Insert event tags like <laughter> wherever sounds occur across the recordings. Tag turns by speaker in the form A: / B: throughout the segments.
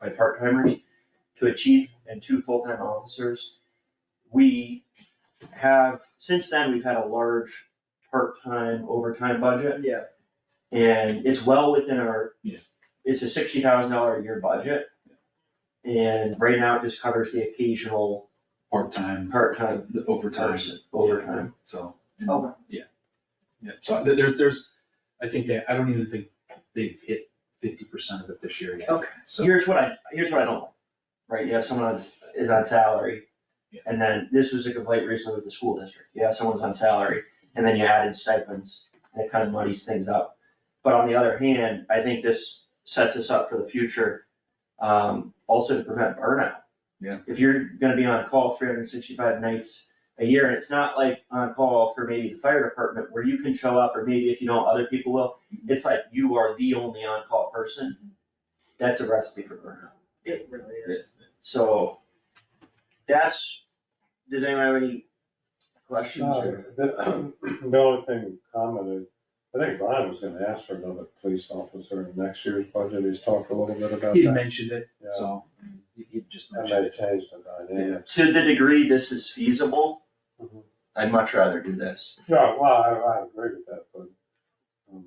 A: by part-timers to a chief and two full-time officers. We have, since then, we've had a large part-time overtime budget,
B: Yeah,
A: and it's well within our,
C: Yeah.
A: it's a sixty thousand dollar a year budget. And right now, it just covers the occasional
C: part-time,
A: part-time
C: the overtime,
A: person, overtime.
C: so.
B: Okay.
C: Yeah. Yeah, so there, there- there's, I think that, I don't even think they've hit fifty percent of it this year yet.
B: Okay.
C: So,
A: Here's what I, here's what I don't like, right, you have someone on s is on salary,
C: Yeah.
A: and then, this was a complaint recently with the school district, you have someone's on salary, and then you add in stipends, and it kind of muddies things up. But on the other hand, I think this sets us up for the future, um, also to prevent burnout.
C: Yeah.
A: If you're gonna be on call three hundred and sixty-five nights a year, and it's not like on call for maybe the fire department where you can show up, or maybe if you don't, other people will, it's like you are the only on-call person that's a recipe for burnout.
B: it really is.
A: So that's, does anyone have any questions
D: No,
A: or?
D: The <clears throat> the only thing commented, I think Brian was gonna ask for another police officer in next year's budget, he's talked a little bit about
C: he had
D: that.
C: mentioned it,
D: Yeah.
C: so, he he just
D: And
C: mentioned
D: they
C: it.
D: changed the dynamic.
A: To the degree this is feasible,
D: Mhm.
A: I'd much rather do this.
D: No, well, I, I agree with that, but, um,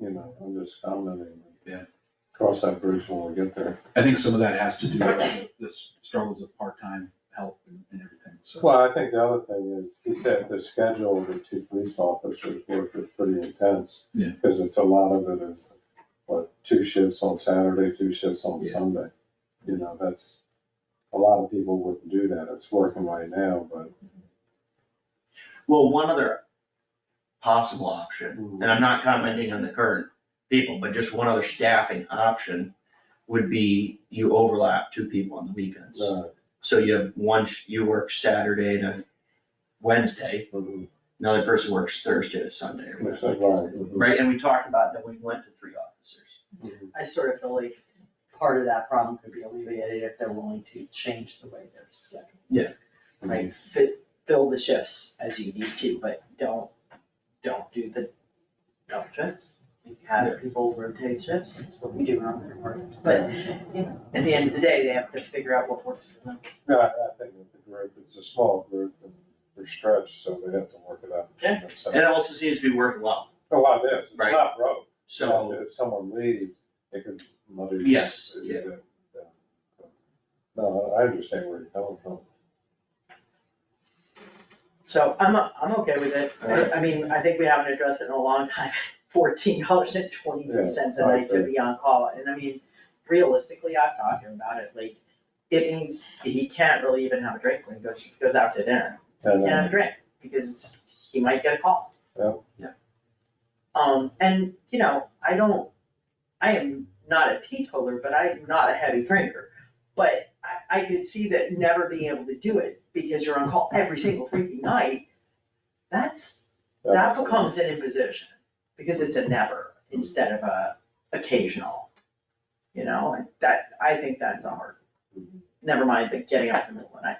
D: you know, I'm just commenting.
C: Yeah.
D: Cross that bridge when we get there.
C: I think some of that has to do with the- the struggles of part-time help and and everything, so.
D: Well, I think the other thing is, he said the schedule of the two police officers work is pretty intense.
C: Yeah.
D: Cause it's a lot of it is, what, two shifts on Saturday, two shifts on
C: Yeah.
D: Sunday. You know, that's, a lot of people wouldn't do that, it's working right now, but.
A: Well, one other possible option,
D: Mm-hmm.
A: and I'm not commenting on the current people, but just one other staffing option would be you overlap two people on the weekends.
D: uh,
A: So you have one, sh- you work Saturday to Wednesday,
D: mhm,
A: another person works Thursday to Sunday or whatever.
D: it's like, right, mhm.
A: Right, and we talked about that we went to three officers.
B: I sort of feel like part of that problem could be alleviated if they're willing to change the way they're scheduled.
A: Yeah.
D: Mm-hmm.
B: Right, fit, fill the shifts as you need to, but don't, don't do the double shifts. We Have people rotate shifts, that's what we do around there, right? but, you know, at the end of the day, they have to figure out what works for them.
D: Yeah, I I think that the group, it's a small group, and they're stretched, so they have to work it out.
A: Yeah. And it also seems to be working well,
D: A lot of it, it's
A: Right.
D: not broke.
A: so,
D: If someone leaves, it could muddy. the-
A: Yes, yeah.
D: uh, No, I understand where you're coming from.
B: So I'm, I'm okay with it, I, I mean, I think we haven't addressed it in a long time, <laughs> fourteen dollars and twenty-three cents a
D: Yeah, I
B: night to be on call, and I mean, realistically, I've talked to him about it, like, it means he can't really even have a drink when he goes, goes out to dinner,
D: And
B: he can't have a
D: then,
B: drink, because he might get a call.
D: Yeah.
A: Yeah.
B: Um, and, you know, I don't, I am not a teetotaler, but I am not a heavy drinker, but I, I could see that never being able to do it, because you're on call every single freaking night, that's
D: uh,
B: that becomes an imposition, because it's a never instead of a occasional. You know, and that, I think that's a hard, never mind the getting up in the middle of the night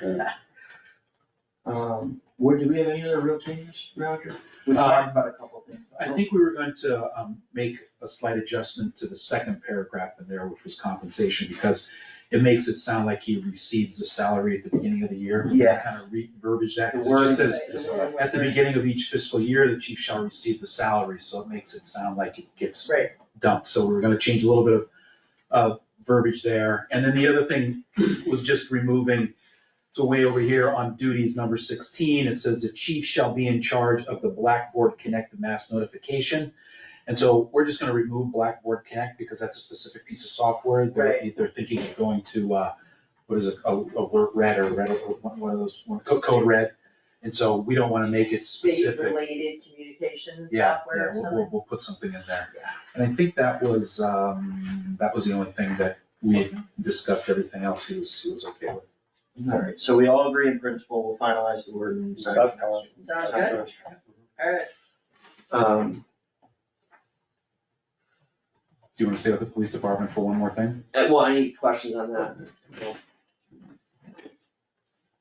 B: thing.
A: um, what, do we have any other real changes, Roger? We talked about a couple of things. but
C: Uh, I
A: don't-
C: think we were going to um, make a slight adjustment to the second paragraph in there, which was compensation, because it makes it sound like he receives the salary at the beginning of the year. Kind
A: Yes.
C: of re-verbiage that, 'cause
A: The wording
C: it just says,
A: is right.
C: at the beginning of each fiscal year, the chief shall receive the salary, so it makes it sound like it gets
B: Right.
C: dumped, so we're gonna change a little bit of, uh verbiage there. And then the other thing was just removing, so way over here on duties, number sixteen, it says the chief shall be in charge of the Blackboard Connect mass notification. And so we're just gonna remove Blackboard Connect because that's a specific piece of software, they're, they're thinking of going to, uh, what is it, a, a word red or red, or one one of those, one- co- code red. And so we don't wanna make it specific.
B: State-related communication
C: Yeah,
B: software
C: yeah,
B: or
C: we'll,
B: something.
C: we'll, we'll put something in there. And I think that was, um, that was the only thing that we had discussed, everything else he was, he was okay with.
A: Alright, so we all agree in principle, we'll finalize the word and sign it.
D: That's all.
B: Sounds good, alright.
A: Um,
C: Do you wanna stay with the police department for one more thing?
A: uh, well, any questions on that?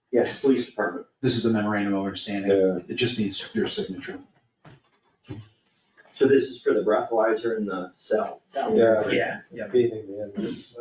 A: Yes, police department.
C: This is the memorandum of understanding,
D: Yeah,
C: it just needs your signature.
A: So this is for the breathalyzer in the cell.
B: So,
D: yeah,
A: Yeah, yeah.
D: feeding the inmates.